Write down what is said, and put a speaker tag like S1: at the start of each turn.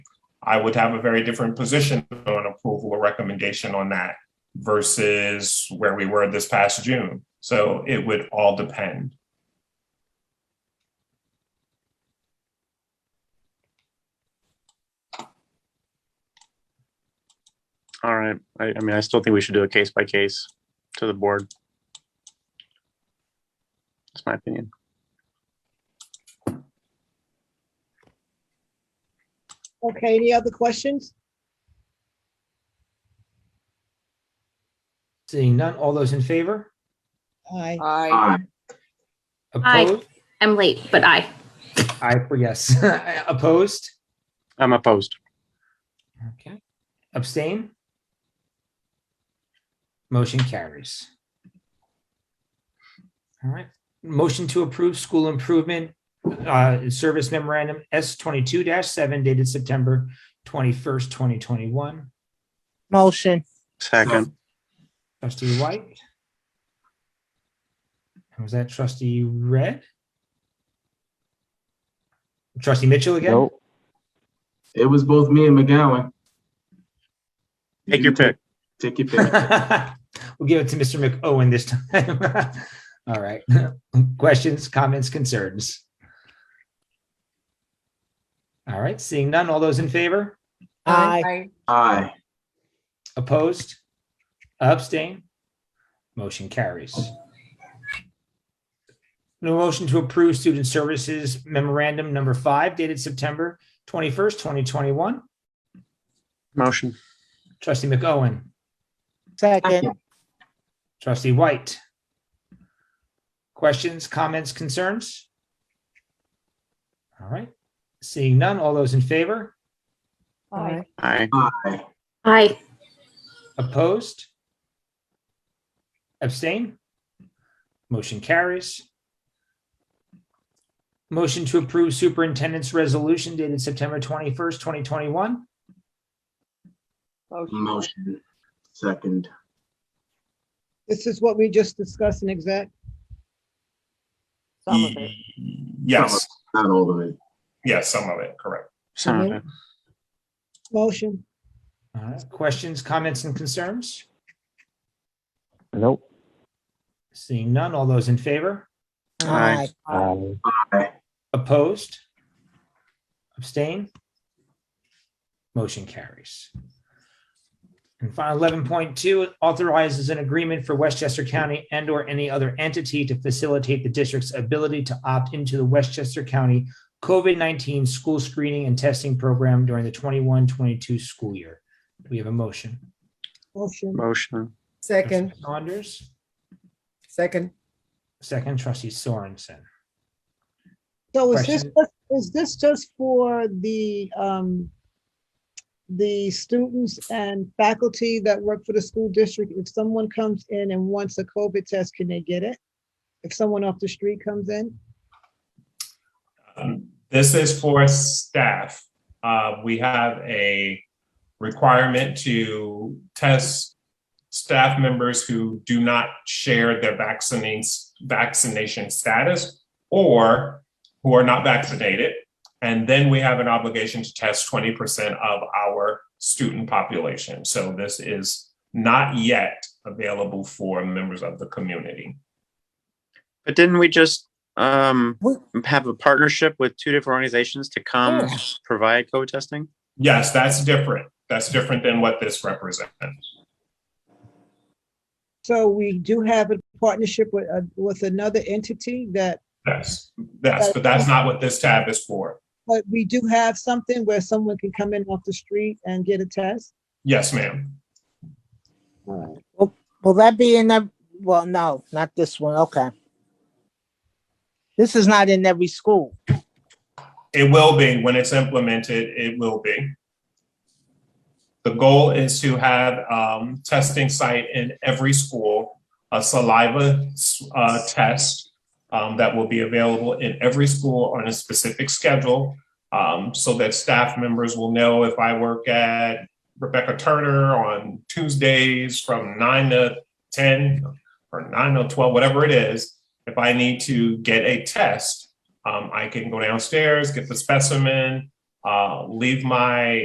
S1: I would have a very different position on approval or recommendation on that versus where we were this past June. So it would all depend.
S2: All right. I, I mean, I still think we should do a case by case to the board. That's my opinion.
S3: Okay, any other questions?
S4: Seeing none, all those in favor?
S3: Aye.
S5: Aye.
S6: Aye.
S4: Opposed?
S6: I'm late, but I.
S4: Aye, for yes. Opposed?
S2: I'm opposed.
S4: Okay. Abstain? Motion carries. All right, motion to approve school improvement uh, service memorandum S twenty-two seven dated September twenty-first, twenty twenty-one.
S3: Motion.
S2: Second,
S4: Trustee White? And Was that trustee Red? Trustee Mitchell again?
S2: Nope.
S5: It was both me and McGowan.
S2: take
S5: You
S2: your pick.
S5: Take your pick.
S4: We'll give it to Mr. McOwen this time. All right. Questions, comments, concerns? All right, seeing none, all those in favor?
S3: Aye.
S5: Aye.
S4: Opposed? Abstain? Motion carries. No motion to approve Student Services Memorandum Number Five dated September twenty-first, twenty twenty-one.
S2: Motion.
S4: Trustee McOwen,
S3: Second.
S4: trustee White. Questions, comments, concerns? All right, seeing none, all those in favor?
S3: Aye.
S2: Aye.
S5: Aye.
S6: Aye.
S4: Opposed? Abstain? Motion carries. Motion to approve superintendent's resolution dated September twenty-first, twenty twenty-one.
S5: Motion. Second.
S3: This is what we just discussed in exec.
S1: Some of it. Yes,
S5: Not all of it.
S1: yes, some of it, correct.
S2: Some of it.
S3: Motion.
S4: All right, questions, comments, and concerns?
S7: Nope.
S4: Seeing none, all those in favor?
S2: Aye.
S7: Um,
S4: Opposed? Abstain? Motion carries. And final eleven point two authorizes an agreement for Westchester County and or any other entity to facilitate the district's ability to opt into the Westchester County COVID nineteen school screening and testing program during the 21-22 school year. Do We have a motion.
S3: Motion.
S2: Motion.
S8: Second,
S4: Trustee Saunders,
S8: second.
S4: second trustee Sorensen.
S3: So is this,
S4: Question.
S3: just- is this just for the, um, the students and faculty that work for the school district? If someone comes in and wants a COVID test, can they get it? If someone off the street comes in?
S1: Um, This is for staff. Uh, we have a requirement to test staff members who do not share their vaccinating, vaccination status or who are not vaccinated. And then we have an obligation to test twenty percent of our student population. So this is not yet available for members of the community.
S2: But didn't we just um
S8: We-
S2: have a partnership with two different organizations to come
S8: Yeah.
S2: provide COVID testing?
S1: Yes, that's different. That's different than what this represents.
S3: So we do have a partnership with, uh, with another entity that
S1: Yes, yes, but that's not what this tab is for.
S3: But we do have something where someone can come in off the street and get a test.
S1: Yes, ma'am.
S9: Will that be in that, well, no, not this one, okay. This is not in every school.
S1: It will be, when it's implemented, it will be. The goal is to have um testing site in every school, a saliva uh test um that will be available in every school on a specific schedule. Um, so that staff members will know if I work at Rebecca Turner on Tuesdays from nine to ten or nine to twelve, whatever it is, if I need to get a test, um, I can go downstairs, get the specimen, uh, leave my